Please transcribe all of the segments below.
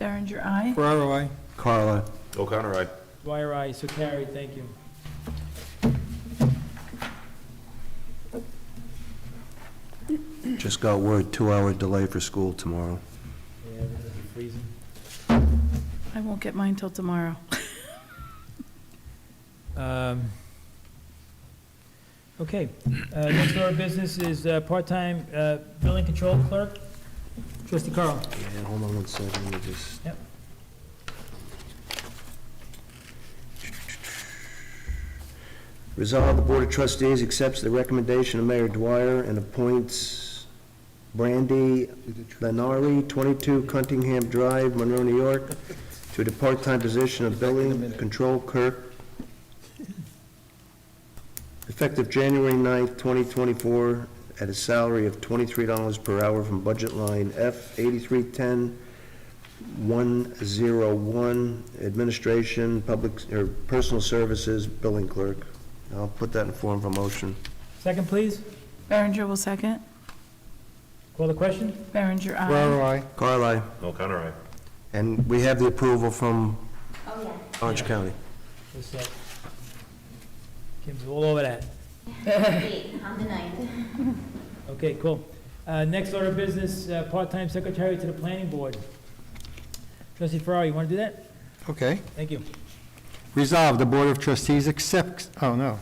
Reader, aye. Ferraro, I. Carla, O'Connor, aye. Dwyer, aye, so carried, thank you. just got word, two-hour delay for school tomorrow. Yeah, it's gonna be freezing. I won't get mine till tomorrow. Um, Okay, uh, next order of business is uh, part-time uh, building control clerk. Trustee Carl. And hold on one second, let me just. Yep. Resolve, the Board of Trustees accepts the recommendation of Mayor Dwyer and appoints Brandy Benari, 22 Cuntingham Drive, Monroe, New York, to the part-time position of Building Control Clerk, effective January 9th, 2024, at a salary of $23 per hour from budget line F 8310 101, Administration, Public, or Personal Services, Billing Clerk. I'll put that in form of a motion. Second, please. Berenger will second. Call the question. Berenger, aye. Ferraro, I. Carly, O'Connor, aye. and we have the approval from Oh, yeah. Orange County. What's that? Kim's all over that. Eight, I'm the ninth. Okay, cool. Uh, Next order of business, uh, part-time secretary to the planning board. Trustee Ferrari, you want to do that? Okay. Thank you. Resolved, the Board of Trustees accepts, oh, no.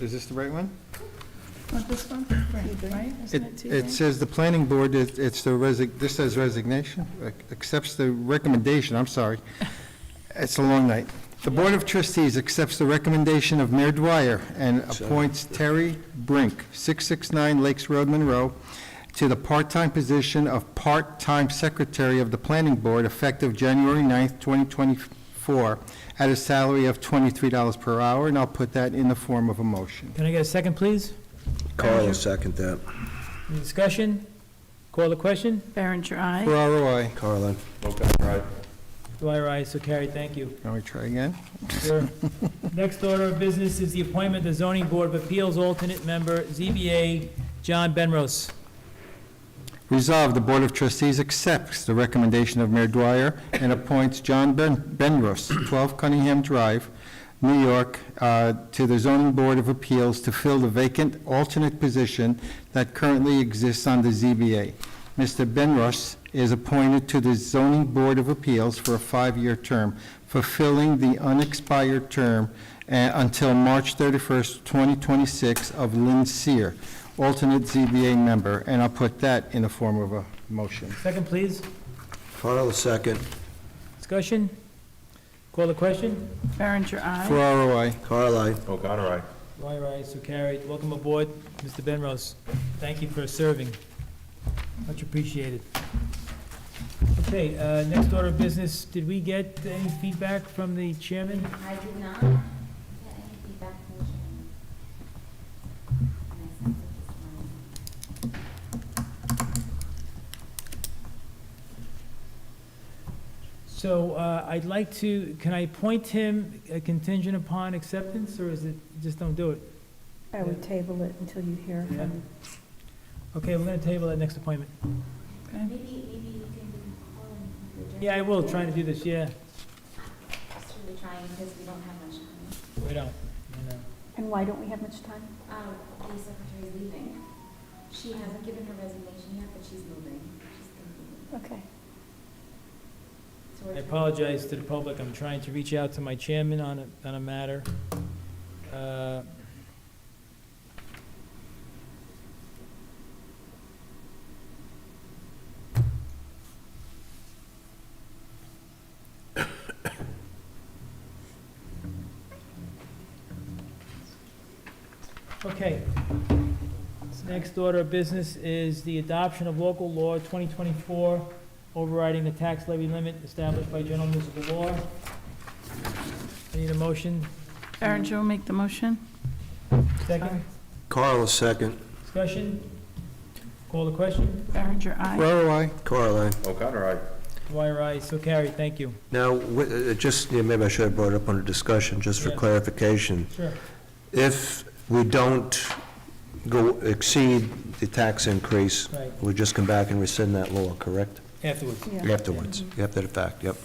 Is this the right one? Want this one? Right, isn't it It two it things? says the planning board, it- it's the resig, this says resignation, ac- accepts the recommendation, I'm sorry. It's a long night. The Board of Trustees accepts the recommendation of Mayor Dwyer and appoints Terry Brink, 669 Lakes Road, Monroe, to the part-time position of part-time secretary of the planning board effective January 9th, 2024, at a salary of $23 per hour, and I'll put that in the form of a motion. Can I get a second, please? Carl will second that. Any discussion? Call the question. Berenger, aye. Ferraro, I. Carla, O'Connor, aye. Dwyer, aye, so carried, thank you. Can we try again? Sure. Next order of business is the appointment of zoning board of appeals alternate member, ZBA, John Benros. Resolved, the Board of Trustees accepts the recommendation of Mayor Dwyer and appoints John Ben- Benrus, 12 Cunningham Drive, New York, uh, to the Zoning Board of Appeals to fill the vacant alternate position that currently exists on the ZBA. Mr. Benrus is appointed to the Zoning Board of Appeals for a five-year term, fulfilling the unexpired term uh, until March 31st, 2026 of Lynn Seer, alternate ZBA member, and I'll put that in the form of a motion. Second, please. Carl will second. Discussion? Call the question. Berenger, aye. Ferraro, I. Carly, O'Connor, aye. Dwyer, aye, so carried. Welcome aboard, Mr. Benros. Thank you for serving. Much appreciated. Okay, uh, next order of business, did we get any feedback from the chairman? I did not get any feedback from the chairman. And I sent it this morning. So uh, I'd like to, can I appoint him uh, contingent upon acceptance, or is it, just don't do it? I would table it until you hear Yeah. from Okay, we're gonna table that next appointment. Maybe, maybe you can call him. for the Yeah, I will, trying to do this, yeah. agenda. Just really trying because we don't have much time. We don't. you know. And why don't we have much time? Um, the secretary's leaving. She hasn't given her resignation yet, but she's moving. She's gonna be moving. Okay. So we're I trying- apologize to the public, I'm trying to reach out to my chairman on a, on a matter. Uh, Okay. Next order of business is the adoption of local law 2024 overriding the tax levy limit established by general municipal law. I need a motion. Berenger will make the motion. Second, Carl will second. discussion? Call the question? Berenger, aye. Ferraro, I. Carly. O'Connor, aye. Dwyer, aye, so carried, thank you. Now, wi- uh, just, yeah, maybe I should have brought it up under discussion, just for Yeah. clarification. Sure. If we don't go, exceed the tax increase, Right, we just come back and rescind that law, correct? afterwards. Yeah. afterwards, after the fact, yep.